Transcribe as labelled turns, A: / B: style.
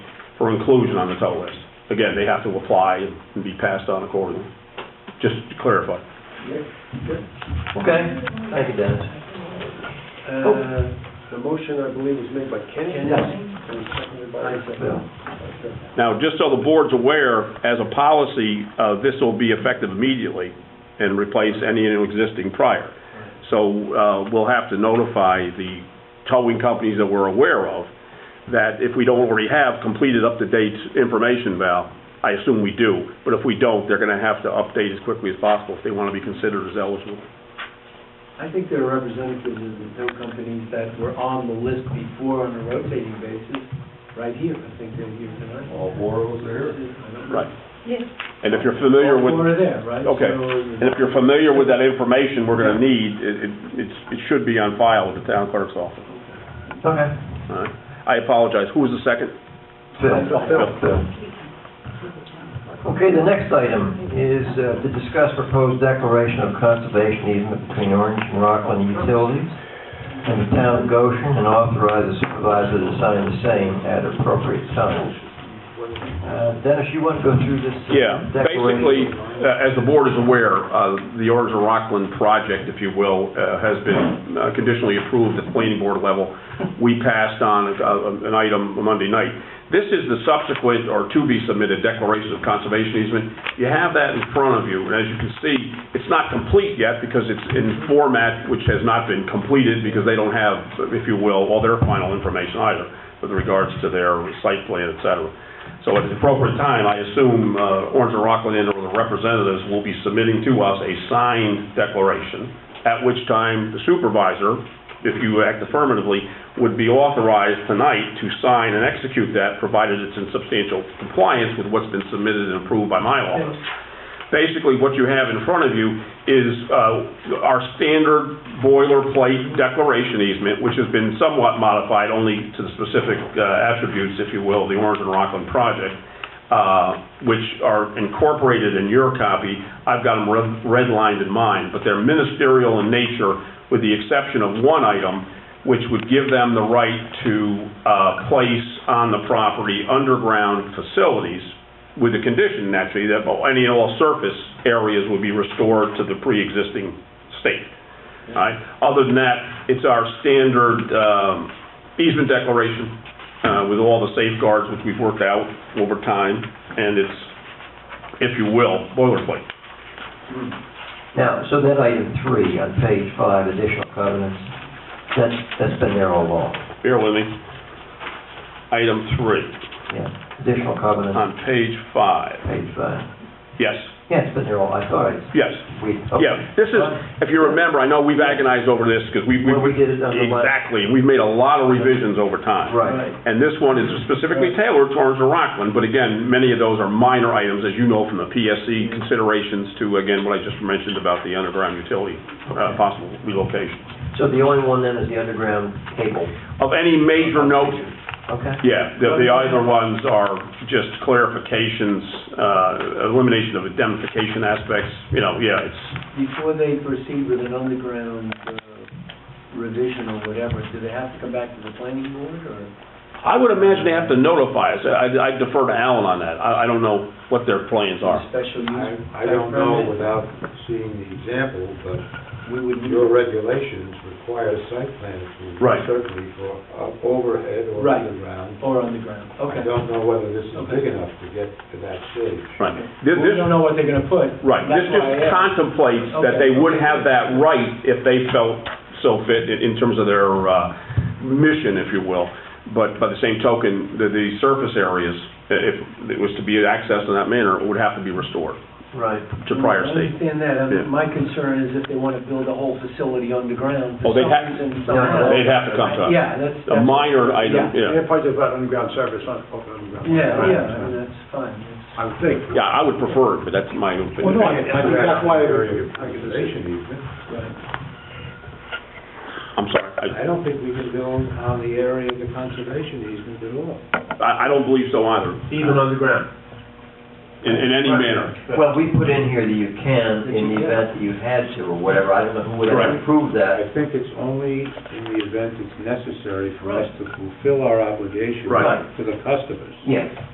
A: for inclusion on the tow list. Again, they have to apply and be passed on accordingly, just to clarify.
B: Okay, thank you, Dennis.
C: Oh.
D: Uh, The motion, I believe, was made by Kenny?
B: Yes.
D: And seconded by Bill. Okay.
A: Now, just so the board's aware, as a policy, uh, this will be effective immediately and replace any existing prior. So uh, we'll have to notify the towing companies that we're aware of that if we don't already have completed up-to-date information, Val, I assume we do, but if we don't, they're going to have to update as quickly as possible if they want to be considered as eligible.
C: I think there are representatives of the tow companies that were on the list before on a rotating basis, right here, I think they're here tonight.
B: All four of us
C: I
B: are here.
C: don't know.
A: Right. And if you're familiar
C: All
A: with...
C: four are there, right?
A: Okay. And if you're familiar with that information we're going to need, it, it- it's, it should be on file with the town clerk's office.
B: Okay.
A: All right. I apologize. Who was the second?
B: Okay, the next item is uh, to discuss proposed declaration of conservation easement between Orange and Rockland Utilities and the town of Goshen and authorize the supervisor to sign the same at appropriate times. Uh, Dennis, you want to go through this? uh,
A: Yeah, basically,
B: declaration?
A: uh, as the board is aware, uh, the Orange and Rockland project, if you will, uh, has been uh, conditionally approved at the planning board level. We passed on a- a- an item Monday night. This is the subsequent or to-be-submitted declaration of conservation easement. You have that in front of you, and as you can see, it's not complete yet because it's in format which has not been completed because they don't have, if you will, all their final information either with regards to their site plan, et cetera. So at the appropriate time, I assume uh, Orange and Rockland and the representatives will be submitting to us a signed declaration, at which time the supervisor, if you act affirmatively, would be authorized tonight to sign and execute that, provided it's in substantial compliance with what's been submitted and approved by my office. Basically, what you have in front of you is uh, our standard boilerplate declaration easement, which has been somewhat modified only to the specific uh, attributes, if you will, of the Orange and Rockland project, uh, which are incorporated in your copy. I've got them red- redlined in mine, but they're ministerial in nature, with the exception of one item, which would give them the right to uh, place on the property underground facilities, with the condition, naturally, that any and all surface areas would be restored to the pre-existing state. All right? Other than that, it's our standard um, easement declaration uh, with all the safeguards which we've worked out over time, and it's, if you will, boilerplate.
B: Now, so that item three on page five, additional covenants, that's, that's been there all along.
A: Bear with me. Item three,
B: Yeah, additional covenants,
A: on page five.
B: page five.
A: Yes,
B: Yeah, it's been there all, I thought it's,
A: yes.
B: we.
A: Yeah, this is, if you remember, I know we've agonized over this, because we...
B: When we did it on the left.
A: Exactly, we've made a lot of revisions over time.
C: uh,
B: Right.
A: And this one is specifically tailored towards the Rockland, but again, many of those are minor items, as you know, from the PSC considerations to, again, what I just mentioned about the underground utility, uh, possible relocation.
B: So the only one then is the underground cable.
A: Of any major note,
B: Okay.
A: yeah, the, the either ones are just clarifications, uh, elimination of indemnification aspects, you know, yeah, it's,
C: Before they proceed with an underground uh, revision or whatever, do they have to come back to the planning board, or?
A: I would imagine they have to notify us. I, I defer to Alan on that. I, I don't know what their plans are.
C: Special
D: I,
C: use?
D: I don't know
C: permit?
D: without seeing the example, but
C: We would need,
D: your regulations require site plan approval.
A: Right.
D: Certainly for uh, overhead or
C: Right.
D: underground.
C: or underground,
D: I
C: okay.
D: don't know whether this is
C: Okay.
D: big enough to get to that stage.
A: Right. This,
C: Well,
A: this,
C: We don't know what they're gonna put.
A: right, this just
C: That's why I asked.
A: contemplates that they would have that right if they felt so fit in, in terms of their, uh, mission, if you will. But by the same token, the, the surface areas, if it was to be accessed in that manner, would have to be restored
B: Right.
A: to prior
C: I
A: state.
C: understand that,
A: Yeah.
C: Uh, my concern is if they wanna build a whole facility underground
A: Oh,
C: for
A: they'd
C: some
A: have-
C: reason,
B: no,
C: somehow.
A: They'd have to come to us.
C: Yeah, that's.
A: A
C: that's-
A: minor item, yeah.
C: Yeah, yeah, I mean, that's fine. That's-
D: I think.
A: Yeah, I would prefer it, but that's my opinion.
E: Well, no, I- I think that's why-
D: Conservation easement.
C: right.
A: I'm sorry. I-
D: I don't think we can build on the area of the conservation easement at all.
A: I, I don't believe so either,
E: Even underground.
A: in, in any manner.
B: Well, we put in here that you can, in the event that you had to or whatever, I don't know who would ever
A: Correct.
B: approve
D: I
B: that.
D: think it's only in the event it's necessary for us to fulfill our obligation
A: Right.
D: to the customers.
B: Yes.